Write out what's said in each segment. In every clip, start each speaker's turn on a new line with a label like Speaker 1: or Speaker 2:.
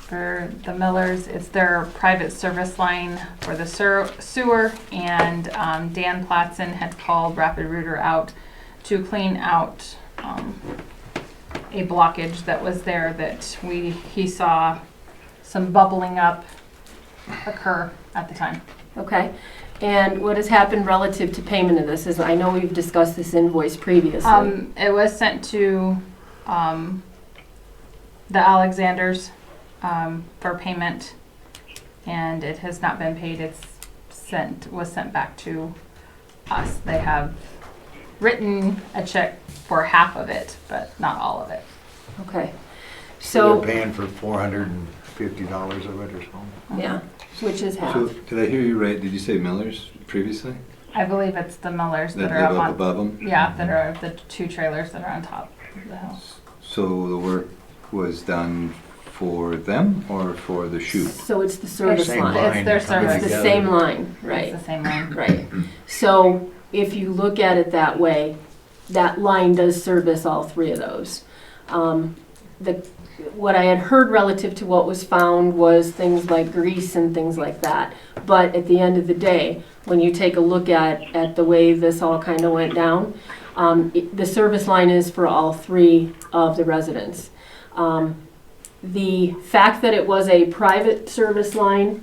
Speaker 1: for the Millers. It's their private service line for the ser- sewer, and um, Dan Platson had called Rapid Rooter out to clean out um, a blockage that was there that we, he saw some bubbling up occur at the time.
Speaker 2: Okay, and what has happened relative to payment of this is, I know we've discussed this invoice previously.
Speaker 1: Um, it was sent to, um, the Alexanders, um, for payment, and it has not been paid. It's sent, was sent back to us. They have written a check for half of it, but not all of it.
Speaker 2: Okay,
Speaker 3: So
Speaker 2: so,
Speaker 3: they're paying for four hundred and fifty dollars of it or something.
Speaker 2: yeah, which is
Speaker 4: So,
Speaker 2: half.
Speaker 4: did I hear you right? Did you say Miller's previously?
Speaker 1: I believe it's the Millers
Speaker 4: That
Speaker 1: that are up
Speaker 4: live up
Speaker 1: on,
Speaker 4: above them?
Speaker 1: yeah, that are the two trailers that are on top of the hill.
Speaker 4: So the work was done for them or for the chute?
Speaker 2: So it's the service
Speaker 3: Same
Speaker 2: line.
Speaker 1: It's their
Speaker 3: that comes
Speaker 1: service.
Speaker 2: It's the
Speaker 3: together.
Speaker 2: same line,
Speaker 1: It's
Speaker 2: right,
Speaker 1: the same one.
Speaker 2: right. So if you look at it that way, that line does service all three of those. Um, The, what I had heard relative to what was found was things like grease and things like that. But at the end of the day, when you take a look at, at the way this all kind of went down, um, it- the service line is for all three of the residents. Um, The fact that it was a private service line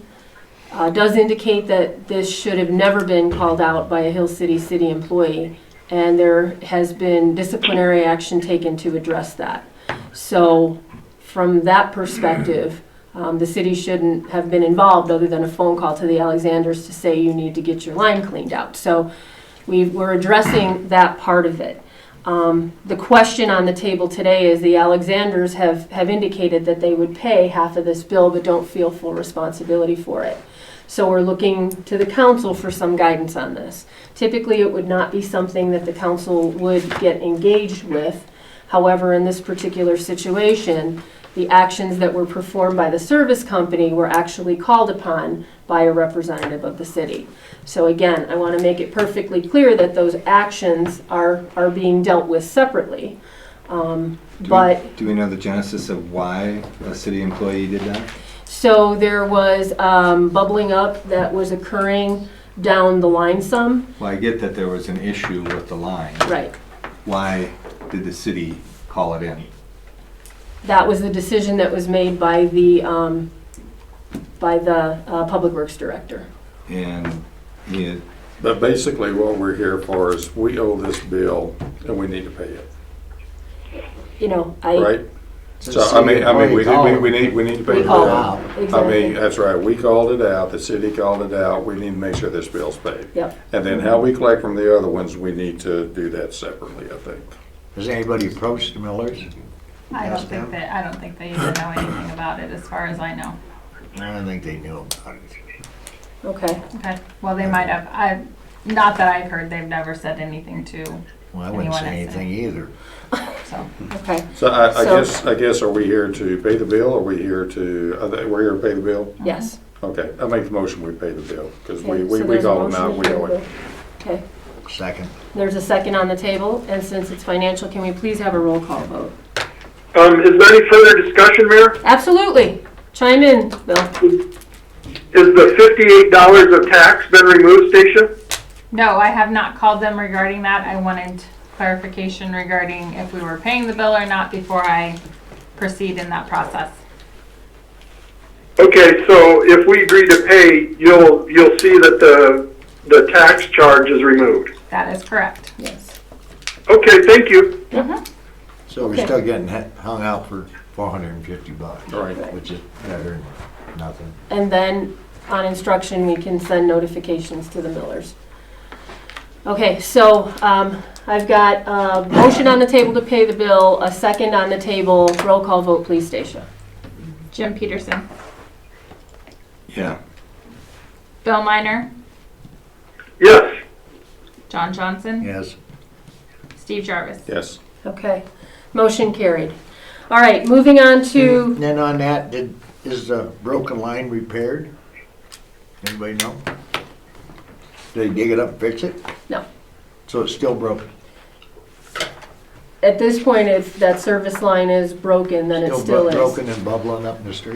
Speaker 2: uh, does indicate that this should have never been called out by a Hill City city employee, and there has been disciplinary action taken to address that. So, from that perspective, um, the city shouldn't have been involved other than a phone call to the Alexanders to say you need to get your line cleaned out. So, we we're addressing that part of it. Um, the question on the table today is the Alexanders have, have indicated that they would pay half of this bill but don't feel full responsibility for it. So we're looking to the council for some guidance on this. Typically, it would not be something that the council would get engaged with. However, in this particular situation, the actions that were performed by the service company were actually called upon by a representative of the city. So again, I want to make it perfectly clear that those actions are, are being dealt with separately. Um,
Speaker 4: Do we-
Speaker 2: But
Speaker 4: Do we know the genesis of why a city employee did that?
Speaker 2: So there was um, bubbling up that was occurring down the line some.
Speaker 4: Well, I get that there was an issue with the line.
Speaker 2: Right.
Speaker 4: Why did the city call it in?
Speaker 2: That was the decision that was made by the, um, by the uh, Public Works Director.
Speaker 4: And he had
Speaker 5: But basically, what we're here for is we owe this bill and we need to pay it,
Speaker 2: You know, I.
Speaker 5: right? So, I mean, I mean, we, we, we need, we need to pay the
Speaker 2: called
Speaker 5: bill.
Speaker 2: out.
Speaker 5: I mean,
Speaker 2: Exactly.
Speaker 5: that's right, we called it out, the city called it out, we need to make sure this bill's paid.
Speaker 2: Yep.
Speaker 5: And then how we collect from the other ones, we need to do that separately, I think.
Speaker 3: Has anybody approached the Millers?
Speaker 1: I don't
Speaker 3: Ask
Speaker 1: think
Speaker 3: them.
Speaker 1: that, I don't think they even know anything about it, as far as I know.
Speaker 3: I don't think they knew about it.
Speaker 2: Okay,
Speaker 1: Okay, well, they might have, I, not that I've heard, they've never said anything to,
Speaker 3: Well, I wouldn't say
Speaker 1: Anyone else?
Speaker 3: anything either.
Speaker 1: so.
Speaker 2: okay,
Speaker 5: So I, I
Speaker 2: So-
Speaker 5: guess, I guess, are we here to pay the bill, or we here to, are they- we're here to pay the bill?
Speaker 2: yes.
Speaker 5: Okay, I make the motion we pay the bill, because we,
Speaker 2: Okay,
Speaker 5: we,
Speaker 2: so
Speaker 5: we
Speaker 2: there's a
Speaker 5: called them out,
Speaker 2: motion
Speaker 5: we
Speaker 2: to
Speaker 5: owe it.
Speaker 2: approve. Okay,
Speaker 3: Second,
Speaker 2: there's a second on the table, and since it's financial, can we please have a roll call vote?
Speaker 6: Um, is there any further discussion, Mayor?
Speaker 2: Absolutely. Chime in, Bill.
Speaker 6: Is the fifty-eight dollars of tax been removed, Stacia?
Speaker 1: No, I have not called them regarding that. I wanted clarification regarding if we were paying the bill or not before I proceed in that process.
Speaker 6: Okay, so if we agree to pay, you'll, you'll see that the, the tax charge is removed.
Speaker 1: That is correct.
Speaker 2: Yes.
Speaker 6: Okay, thank you.
Speaker 3: so we're
Speaker 2: Okay.
Speaker 3: still getting hu- hung out for four hundred and fifty bucks.
Speaker 5: Right.
Speaker 3: Which is better than nothing.
Speaker 2: And then on instruction, we can send notifications to the millers. Okay, so um, I've got a motion on the table to pay the bill, a second on the table. Roll call vote, please, Stacia.
Speaker 1: Jim Peterson,
Speaker 4: Yeah.
Speaker 1: Bill Miner,
Speaker 6: Yes,
Speaker 1: John Johnson,
Speaker 3: Yes,
Speaker 1: Steve Jarvis.
Speaker 5: Yes.
Speaker 2: Okay, motion carried. All right, moving on to,
Speaker 3: and then on that, did, is the broken line repaired? Anybody know? Did they dig it up and fix it?
Speaker 2: No.
Speaker 3: So it's still broken?
Speaker 2: at this point, if that service line is broken, then it
Speaker 3: bro-
Speaker 2: still is.
Speaker 3: Broken and bubbling up in the street?